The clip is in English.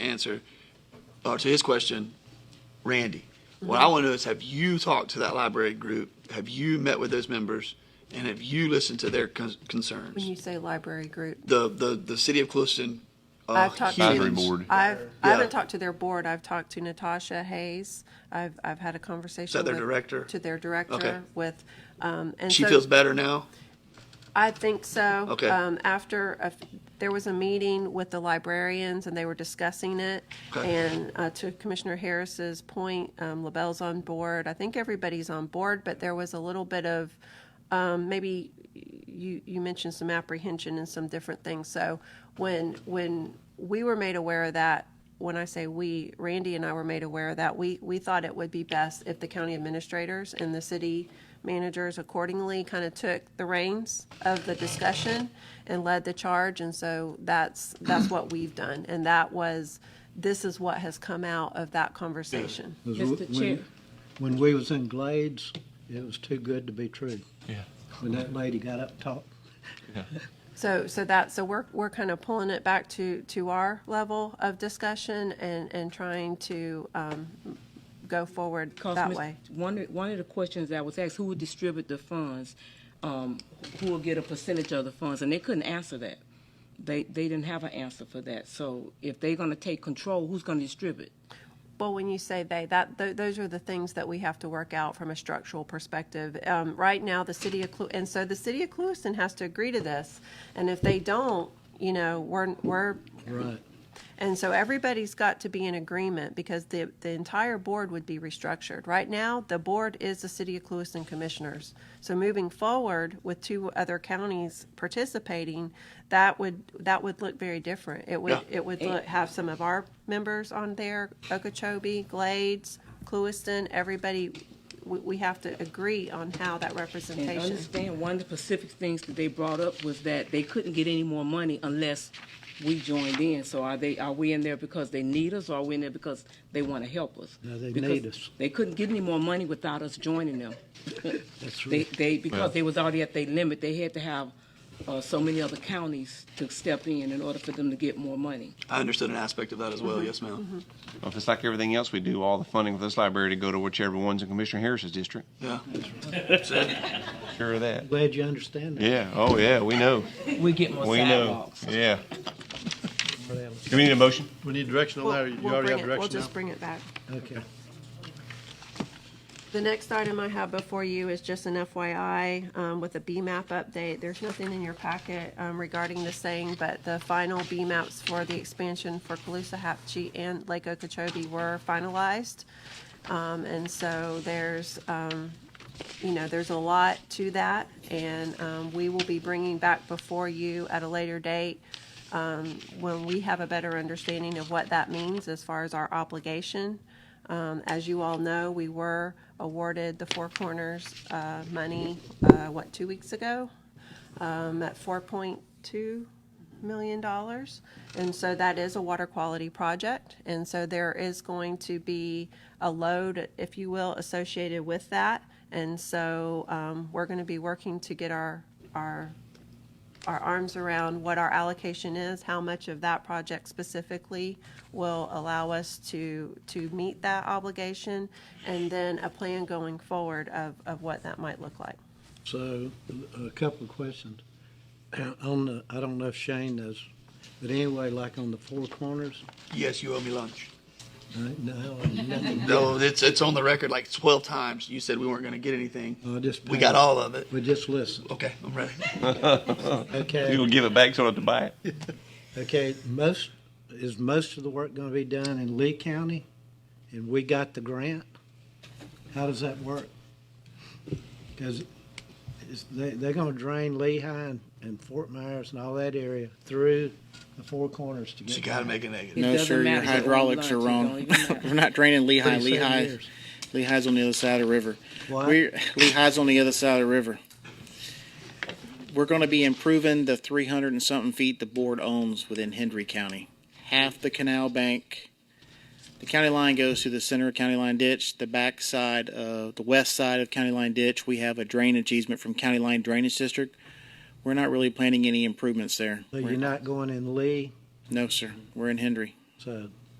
answer, or to his question, Randy, what Mm-hmm. I want to know is have you talked to that library group? Have you met with those members? And have you listened to their con- When concerns? you say library group, The, the, the city of Clueston. uh, I've talked to. humans- Advisory board. I've, I Yeah. haven't talked to their board. I've talked to Natasha Hayes. I've, I've had a conversation. their with- director? To their Okay. director with, um, and She so- feels better now? I think so. Okay. Um, after, a f there was a meeting with the librarians and they were discussing it. Okay. And, uh, to Commissioner Harris's point, um, LaBelle's on board. I think everybody's on board, but there was a little bit of, um, maybe you, you mentioned some apprehension and some different things. So when, when we were made aware of that, when I say we, Randy and I were made aware of that, we, we thought it would be best if the county administrators and the city managers accordingly kind of took the reins of the discussion and led the charge. And so that's, that's what we've done. And that was, this is what has come out of that conversation. Was Mr. when- Chair. When we was in Glades, it was too good to be true. Yeah. When that lady got up talk, So, so that, so we're, we're kind of pulling it back to, to our level of discussion and, and trying to, um, go forward Because that Ms. way. One, of- one of the questions I was asked, who would distribute the funds? Um, who will get a percentage of the funds? And they couldn't answer that. They, they didn't have an answer for that. So if they're gonna take control, who's gonna distribute? Well, when you say they, that, th- those are the things that we have to work out from a structural perspective. Um, right now, the city of, Clu- and so the city of Clueston has to agree to this. And if they don't, you know, we're, we're, right, and so everybody's got to be in agreement because the, the entire board would be restructured. Right now, the board is the city of Clueston commissioners. So moving forward with two other counties participating, that would, that would look very different. It would, Yeah. it would look, have some of our members on there, Okeechobee, Glades, Clueston, everybody, we, we have to agree on how that And representation. understand, one of the specific things that they brought up was that they couldn't get any more money unless we joined in. So are they, are we in there because they need us, or are we in there because they wanna help us? No, they Because need us. They couldn't get any more money without us joining them. that's They, right. they, because they was already at their limit, they had to have, uh, so many other counties to step in in order for them to get more money. I understood an aspect of that as Mm-hmm. well. Yes, ma'am. Well, if it's like everything else we do, all the funding for this library to go to whichever one's in Commissioner Harris's district. Yeah. Mm-hmm. Sure of that. Glad you understand that. Yeah. Oh, yeah. We know. We get more We know. sidewalks. Yeah. Brad. Do we need a motion? We need direction on We'll- that, or you we'll already bring have it- We'll direction now? just bring it back. Okay. The next item I have before you is just an FYI um, with a BMAP update. There's nothing in your packet um, regarding the same, but the final BMAPs for the expansion for Calusa Hatchie and Lake Okeechobee were finalized. Um, And so there's, um, you know, there's a lot to that. And um, we will be bringing back before you at a later date um, when we have a better understanding of what that means as far as our obligation. Um, as you all know, we were awarded the Four Corners, uh, money, uh, what, two weeks ago? Um, at four point two million dollars. And so that is a water quality project. And so there is going to be a load, if you will, associated with that. And so, um, we're gonna be working to get our, our our arms around what our allocation is, how much of that project specifically will allow us to, to meet that obligation, and then a plan going forward of, of what that might look like. So, a couple of questions. On the, I don't know if Shane knows, but anyway, like on the four corners, Yes, you owe me lunch. right now, nothing. No, it's, it's on the record like 12 times. You said we weren't going to get anything. I just. We got all of it. But just listen, Okay, I'm ready. You okay, gonna give it back so I don't have to buy it? okay, most, is most of the work gonna be done in Lee County? And we got the grant? How does that work? Cause it's, they, they're gonna drain Lehigh and, and Fort Myers and all that area through the Four Corners to get. She got to make a negative. It No, doesn't sure, your matter. It's a hydraulics are whole lot. wrong. It don't even matter. We're not draining Lehigh. 37 Lehigh, years. Lehigh's on the other side of the river. What? We're, Lehigh's on the other side of the river. We're going to be improving the 300 and something feet the board owns within Hendry County. Half the canal bank, the county line goes through the center of county line ditch, the back side of the west side of county line ditch. We have a drainage easement from county line drainage district. We're not really planning any improvements there. So We're- you're not going in Lee, No, sir. We're in Hendry. so